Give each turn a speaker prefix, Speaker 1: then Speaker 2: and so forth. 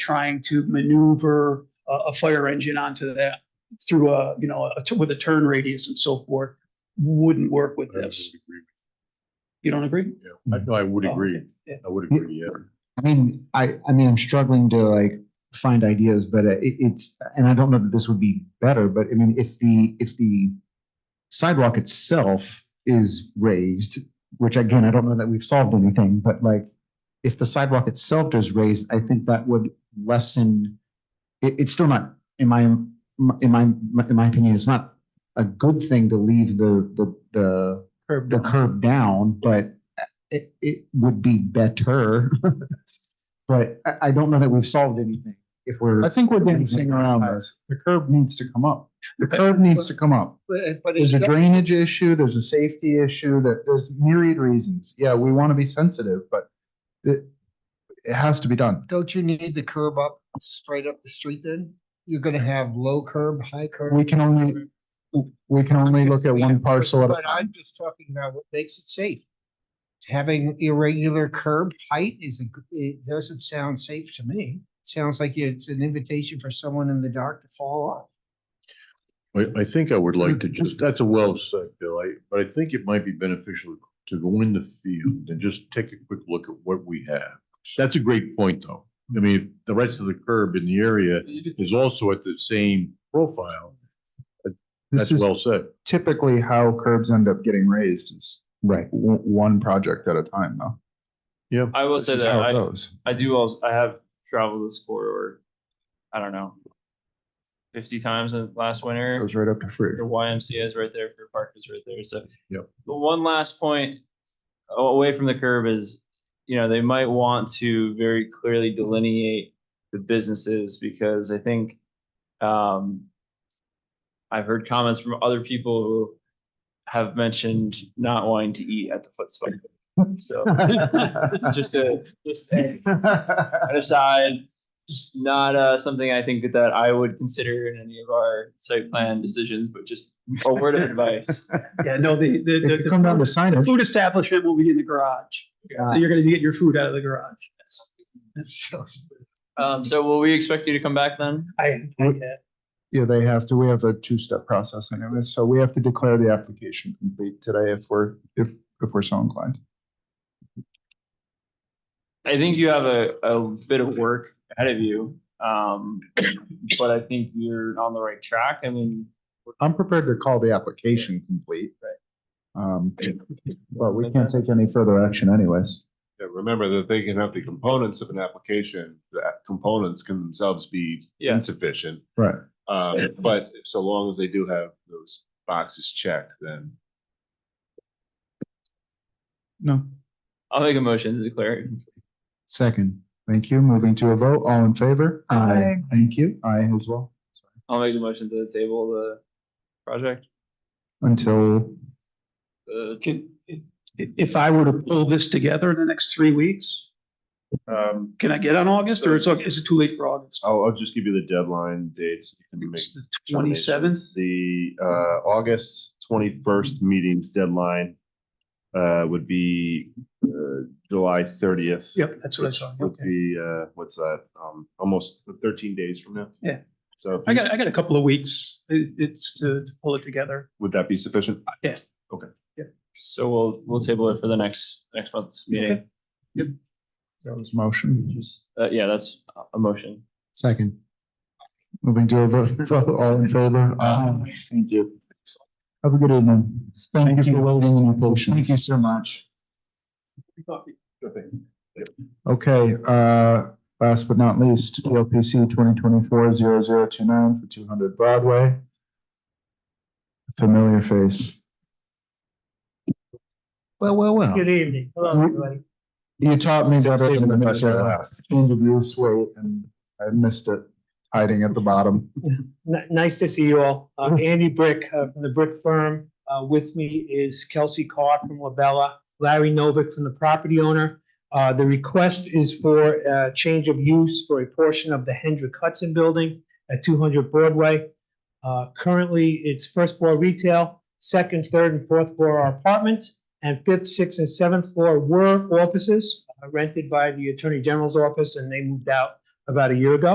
Speaker 1: trying to maneuver a, a fire engine onto that through a, you know, a, with a turn radius and so forth, wouldn't work with this. You don't agree?
Speaker 2: I know, I would
Speaker 1: Oh,
Speaker 2: agree.
Speaker 1: okay. Yeah.
Speaker 2: I would agree, yeah.
Speaker 3: I mean, I, I mean, I'm struggling to like find ideas, but it, it's, and I don't know that this would be better, but I mean, if the, if the sidewalk itself is raised, which again, I don't know that we've solved anything, but like, if the sidewalk itself is raised, I think that would lessen, it, it's still not, in my, in my, in my opinion, it's not a good thing to leave the, the, the
Speaker 1: Curb
Speaker 3: the
Speaker 1: down.
Speaker 3: curve down, but it, it would be better. But I, I don't know that we've solved anything if we're.
Speaker 4: I think we're dancing around this. The curb needs to come up. The curb needs to come up.
Speaker 5: But
Speaker 4: There's a drainage issue, there's a safety issue, that there's myriad reasons. Yeah, we want to be sensitive, but it, it has to be done.
Speaker 5: don't you need the curb up, straight up the street then? You're gonna have low curb, high curb.
Speaker 4: We can only, we can only look at one parcel at a
Speaker 5: But I'm just talking about what makes it safe. Having irregular curb height is, a g- it doesn't sound safe to me. Sounds like it's an invitation for someone in the dark to fall off.
Speaker 2: I, I think I would like to
Speaker 1: Mm-hmm.
Speaker 2: just, that's a well said, Bill, I, but I think it might be beneficial to go in the field and just take a quick look at what we have. That's a great point, though. I mean, the rest of the curb in the area is also at the same profile.
Speaker 4: This
Speaker 2: That's
Speaker 4: is
Speaker 2: well said.
Speaker 4: typically how curbs end up getting raised is
Speaker 3: Right.
Speaker 4: w- one project at a time though.
Speaker 2: Yeah.
Speaker 6: I will
Speaker 4: This
Speaker 6: say
Speaker 4: is
Speaker 6: that
Speaker 4: how it
Speaker 6: I,
Speaker 4: goes.
Speaker 6: I do also, I have traveled this corridor, I don't know, fifty times in last
Speaker 4: It
Speaker 6: winter.
Speaker 4: goes right up to free.
Speaker 6: Your YMCA is right there, Fruit Park is right there, so.
Speaker 2: Yep.
Speaker 6: The one last point a- away from the curb is, you know, they might want to very clearly delineate the businesses because I think, um, I've heard comments from other people who have mentioned not wanting to eat at the foot spot. So just a, just a an aside, not uh, something I think that I would consider in any of our site plan decisions, but just a word of advice.
Speaker 1: Yeah, no, the, the-
Speaker 3: If
Speaker 1: the,
Speaker 3: you come down to
Speaker 1: the food- the
Speaker 3: signage,
Speaker 1: food establishment will be in the garage. So you're gonna be getting your food out of the garage.
Speaker 6: Um, so will we expect you to come back then?
Speaker 1: I, I-
Speaker 4: Yeah, they have to, we have a two-step process anyway, so we have to declare the application complete today if we're, if, if we're so inclined.
Speaker 6: I think you have a, a bit of work ahead of you. Um, but I think you're on the right track. I mean,
Speaker 4: I'm prepared to call the application complete. Um, but we can't take any further action anyways.
Speaker 7: Yeah, remember that they can have the components of an application, that components can themselves be
Speaker 6: Yeah.
Speaker 7: insufficient.
Speaker 4: Right.
Speaker 7: Um, but so long as they do have those boxes checked, then
Speaker 4: No.
Speaker 6: I'll make a motion to declare.
Speaker 4: Second, thank you. Moving to a vote, all in favor?
Speaker 3: Aye.
Speaker 4: Thank you. Aye as well.
Speaker 6: I'll make the motion to table the project.
Speaker 4: Until,
Speaker 6: The
Speaker 1: Uh, can, i- if I were to pull this together in the next three weeks,
Speaker 7: um,
Speaker 1: can I get on August or is, is it too late for August?
Speaker 7: I'll, I'll just give you the deadline dates. You can make
Speaker 1: Twenty-seventh?
Speaker 7: The uh, August twenty-first meetings deadline uh, would be uh, July thirtieth.
Speaker 1: Yep, that's what I saw.
Speaker 7: Would
Speaker 1: Okay.
Speaker 7: be, uh, what's that, um, almost thirteen days from now?
Speaker 1: Yeah.
Speaker 7: So. if
Speaker 1: I
Speaker 7: you-
Speaker 1: got, I got a couple of weeks. It- it's to, to pull it together.
Speaker 7: Would that be sufficient?
Speaker 6: so we'll, we'll table it for the next, next month's meeting.
Speaker 4: that was motion.
Speaker 6: Just, uh, yeah, that's a- a motion.
Speaker 3: second.
Speaker 4: Moving to a vote, vote, all in favor? Aye. Uh, Thank you. Have a good evening.
Speaker 3: Thank you for waiting and your
Speaker 4: Thank you
Speaker 3: patience.
Speaker 4: so much. Okay, uh, last but not least, ELPC 2024-0029 for two hundred Broadway. Familiar face.
Speaker 3: Well, well, well.
Speaker 5: evening.
Speaker 4: Hello, everybody. You taught me better than the minister last. Change of use, wait, and I missed it, hiding at the bottom.
Speaker 8: N- Nice to see you all. Uh, Andy Brick uh, from the Brick Firm. Uh, With me is Kelsey Carr from Labella, Larry Novick from the property owner. Uh, The request is for a change of use for a portion of the Hendrick Hudson Building at 200 Broadway. Uh, Currently, it's first floor retail, second, third, and fourth floor are apartments, and fifth, sixth, and seventh floor were offices uh, rented by the Attorney General's office, and they moved out a
Speaker 4: about a year ago.